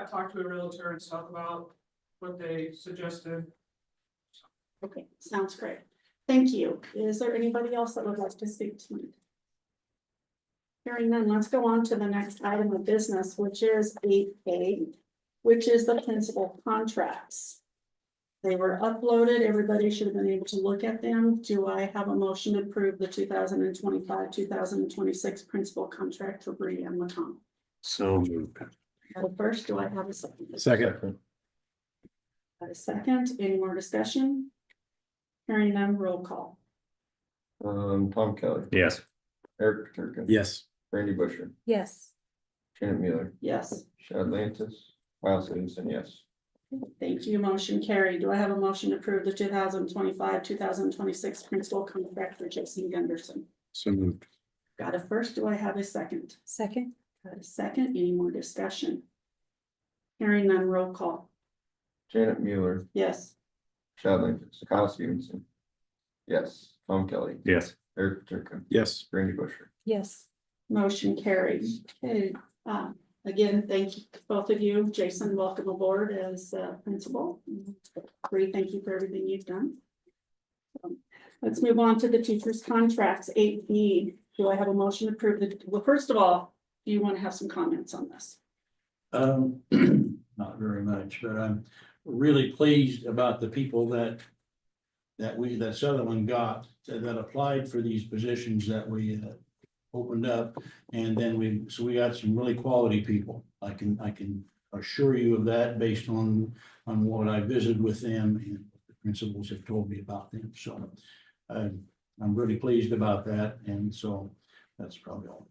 talk to a realtor and talk about what they suggested. Okay, sounds great. Thank you. Is there anybody else that would like to speak tonight? Hearing none, let's go on to the next item of business, which is eight A, which is the principal contracts. They were uploaded. Everybody should have been able to look at them. Do I have a motion to approve the two thousand and twenty-five, two thousand and twenty-six principal contract for Bree and Lacombe? So moved. I have a first, do I have a second? Second. A second, any more discussion? Hearing none, roll call. Um, Tom Kelly, Yes. Eric Turka. Yes. Randy Busher, yes, Janet Mueller, Yes. Shad Lantis, Miles Stevenson, yes. Thank you, motion carried. Do I have a motion to approve the two thousand twenty-five, two thousand twenty-six principal contract for Jason Gunderson? So moved. Got a first, do I have a second? second, Got a second, any more discussion? Hearing none, roll call. Janet Mueller, Yes, Shad Lantis, Kyle Stevenson. Yes, Tom Kelly, Yes. Eric Turka, Yes. Randy Busher. yes, motion carried. Okay, uh, again, thank you, both of you. Jason, welcome aboard as uh, principal. Bree, thank you for everything you've done. Um, Let's move on to the teachers' contracts, eight B. Do I have a motion to approve the, well, first of all, do you want to have some comments on this? Um, not very much, but I'm really pleased about the people that. That we, that Sutherland got, that applied for these positions that we uh, opened up. And then we, so we got some really quality people. I can, I can assure you of that based on, on what I visited with them and what the principals have told me about them, so. I'm, I'm really pleased about that, and so that's probably all.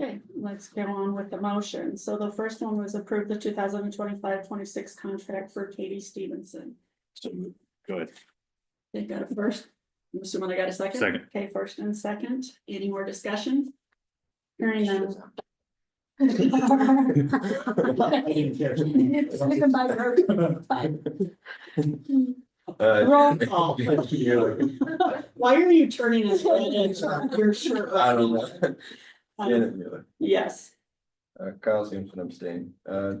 Okay, let's go on with the motion. So the first one was approve the 2025-26 contract for Katie Stevenson. So moved. Good. They got a first. Mr. Miller got a second? Second. Okay, first and second. Any more discussion? Hearing none. Uh, Roll call. Why are you turning this way? You're sure. I don't know. Um, Janet Mueller, Yes, uh, Kyle Stevenson abstained, uh,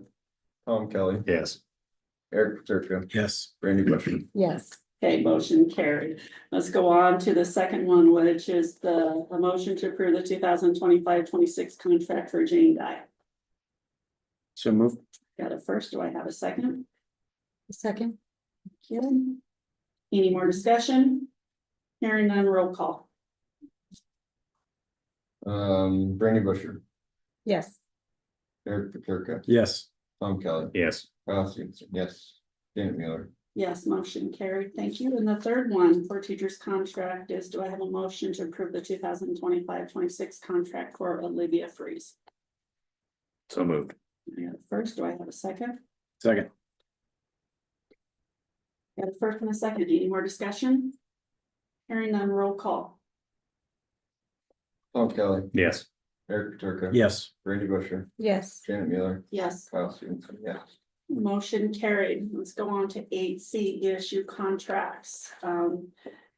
Tom Kelly, Yes. Eric Turka, Yes. Randy Busher. yes, okay, motion carried. Let's go on to the second one, which is the, a motion to approve the 2025-26 contract for Jane Dye. So moved. Got a first, do I have a second? second, Kim? Any more discussion? Hearing none, roll call. Um, Brandy Busher, yes, Eric Paterka, Yes. Tom Kelly, Yes. Kyle Stevenson, yes. Janet Mueller, Yes, motion carried, thank you. And the third one for teachers' contract is, do I have a motion to approve the 2025-26 contract for Olivia Freeze? So moved. I got a First, do I have a second? Second. Got a first and a second, any more discussion? Hearing none, roll call. Tom Oh, Kelly, Yes. Eric Paterka. Yes. Randy Busher, yes, Janet Mueller, Yes, Kyle Stevenson, yes. Motion carried. Let's go on to eight C, ESU contracts. Um,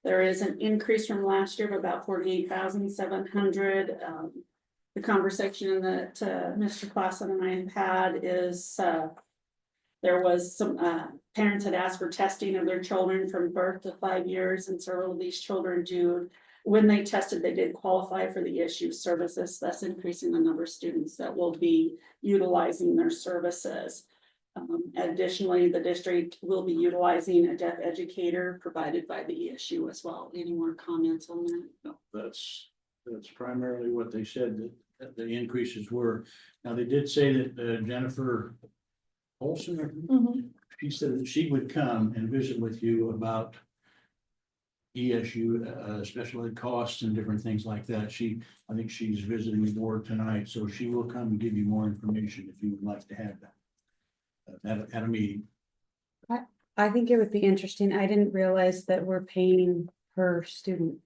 there is an increase from last year of about forty-eight thousand seven hundred. Um, the conversation that, uh, Mr. Clausen and I have had is, uh, there was some, uh, parents had asked for testing of their children from birth to five years, and several of these children do. When they tested, they did qualify for the ESU services, thus increasing the number of students that will be utilizing their services. Um, additionally, the district will be utilizing a deaf educator provided by the ESU as well. Any more comments on that? No, that's, that's primarily what they said that, that the increases were. Now, they did say that uh, Jennifer Olson, or- she said that she would come and visit with you about ESU, uh, special ed costs and different things like that. She, I think she's visiting the board tonight, so she will come and give you more information if you would like to have that. uh, At, a- at a meeting. I think it would be interesting, I didn't realize that we're paying per student,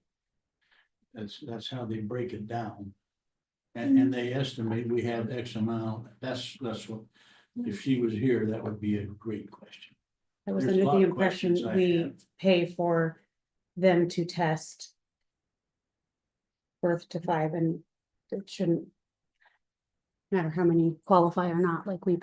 That's, that's how they break it down. Hmm. And, and they estimate we have X amount, that's, that's what, if she was here, that would be a great question. I was There's a under lot the of impression questions I we have. pay for them to test. Birth to five and it shouldn't. matter how many qualify or not, like we